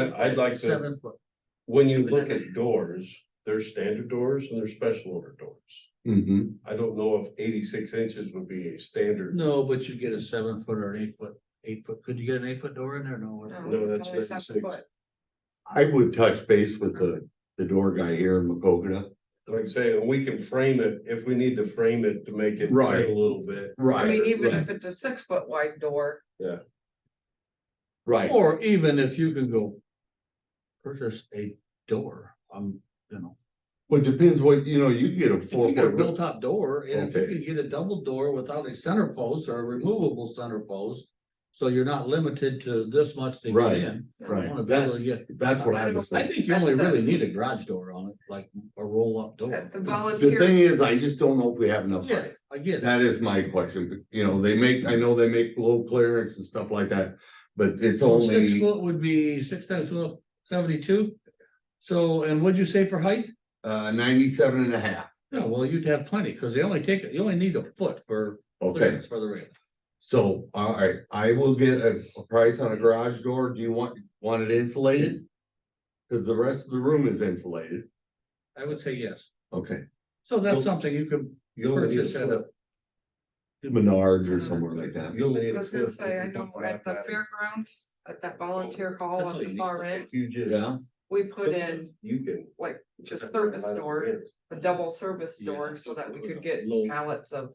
I'd like to, Seven foot. when you look at doors, there's standard doors and there's special order doors. Mhm. I don't know if eighty-six inches would be a standard. No, but you get a seven foot or an eight foot, eight foot, could you get an eight foot door in there? No. No, No, Oh, that's it's only 96. seven foot. I would touch base with the, the door guy here in Macogata. Like I say, we can frame it if we need to frame it to make it fit Right. a little bit. I mean, even right, if it's a six foot wide door, Right, Or even if you can go. Purchase a door, um, you know, well, it depends what, you know, you get a if you four get a real foot, top door, and if you Okay. can get a double door without a center post or a removable center post. So you're not limited to this much to get Right. in. wanna uh, right, be able that's, to that's what I was I saying. think you only really need a garage door on it, like a roll up door. at the The thing volunteer, is, I just don't know if we have enough. Yeah, I get it. That is my question, but, you know, they make, I know they make low clearance and stuff like that, but it's So six only, foot would be six times twelve, seventy-two. So, and what'd you say for height? uh, ninety-seven and a half. No, well, you'd have plenty, cause they only take, you only need a foot for Okay, clearance for the rail. so, all right, I will get a, a price on a garage door. Do you want, want it insulated? Cause the rest of the room is insulated. I would say yes. Okay. So Well, that's something you could You'll need a purchase at a, foot. Menards or somewhere like that. You'll need I a was gonna foot say, if I you know want at the that. fairgrounds, at that Oh, volunteer hall That's at all you the need. far end, If You just. Yeah, we put in You can. like just service door, a double service door, so that we could get Low. pallets of,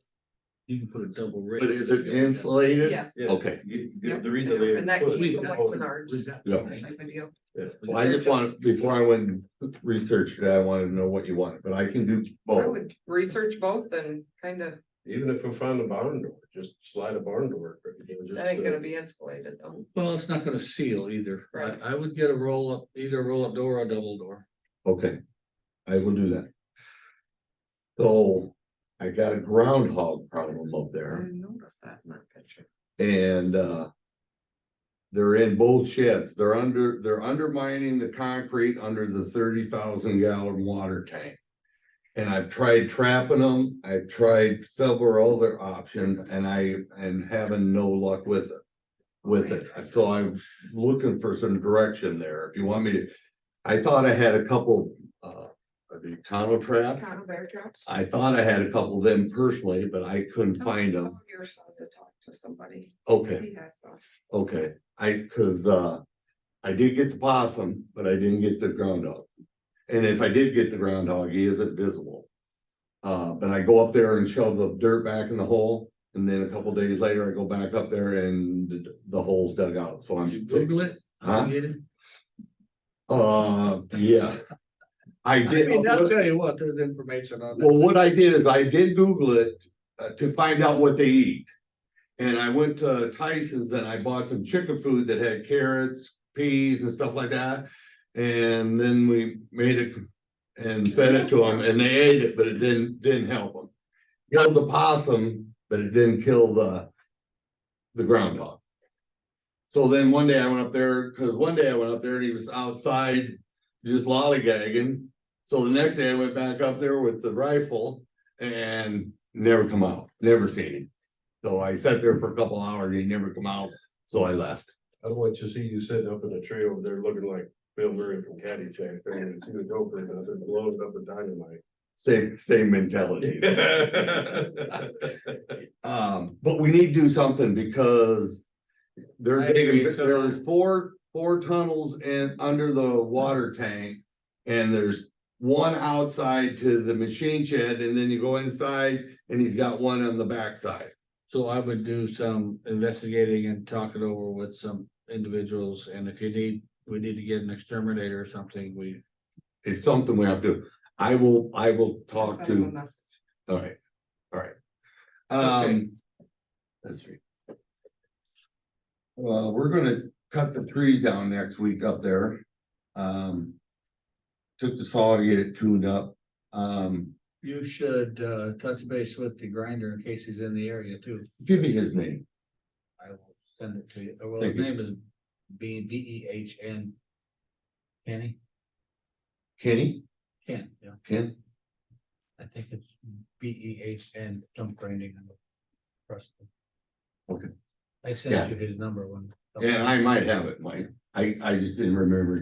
you can put a double. rail. but is it insulated? yes. Yeah. Okay, You, you- Yep. the reason they. And that put- keeps We've them like got- Menards Yeah. type of deal. well, I just wanted, before I went and researched it, I wanted to know what you wanted, but I can do I both. would research both and kind of, Even if we find a barn door, just slide a barn door. that ain't gonna be insulated though. Well, it's not gonna seal either. Right. I, I would get a roll up, either a roll up door or a double door. Okay, I will do that. So I got a groundhog problem up I there didn't notice that in that picture. and uh. They're in both sheds. They're under, they're undermining the concrete under the thirty thousand gallon water tank. And I've tried trapping them. I've tried several other options and I and having no luck with it. With it. So I'm looking for some direction there. If you want me to, I thought I had a couple uh of the tonneau traps. Kind of bear traps. I thought I had a couple of them personally, but I couldn't Oh, find them. Tell Your son to talk to somebody. Okay. He has some. Okay, I, cause uh, I did get the possum, but I didn't get the groundhog. And if I did get the groundhog, he isn't visible. Uh, but I go up there and shove the dirt back in the hole, and then a couple days later, I go back up there and th- the hole's dug out, so You I'm. Google it, Um, Huh? I get it. Uh, yeah. I I did. mean, I'll tell you what, there's information on that. Well, what I did is I did Google it uh, to find out what they eat. And I went to Tyson's and I bought some chicken food that had carrots, peas and stuff like that. And then we made it and fed it to them and they ate it, but it didn't, didn't help them. Killed the possum, but it didn't kill the, the groundhog. So then one day I went up there, cause one day I went up there and he was outside just lollygagging. So the next day I went back up there with the rifle and never come out, never seen him. So I sat there for a couple hours, he never come out, so I left. I don't want you to see you sitting up in a tree over there looking like Bill Murray from Caddyshack, there you see the dope and nothing, blowing up the Same, same mentality. dynamite. Um, but we need to do something because they're I agree, digging, so- there's four, four tunnels in, under the water tank. And there's one outside to the machine shed and then you go inside and he's got one on the backside. So I would do some investigating and talk it over with some individuals, and if you need, we need to get an exterminator or something, we. It's something we have to, I will, I will talk Send to. him a message. All right, all right. Okay. Um. Let's see. Well, we're gonna cut the trees down next week up there. Um. Took the saw to get it tuned up. Um, You should uh touch base with the grinder in case he's in the area too. give me his name. I will send it to you. Well, Thank his you. name is B B E H N. Kenny? Kenny, Ken, yeah. Ken, I think it's B E H N dump grinding. I'm trusting. Okay. I sent you his number when. and I might have it, Mike. I, I just didn't remember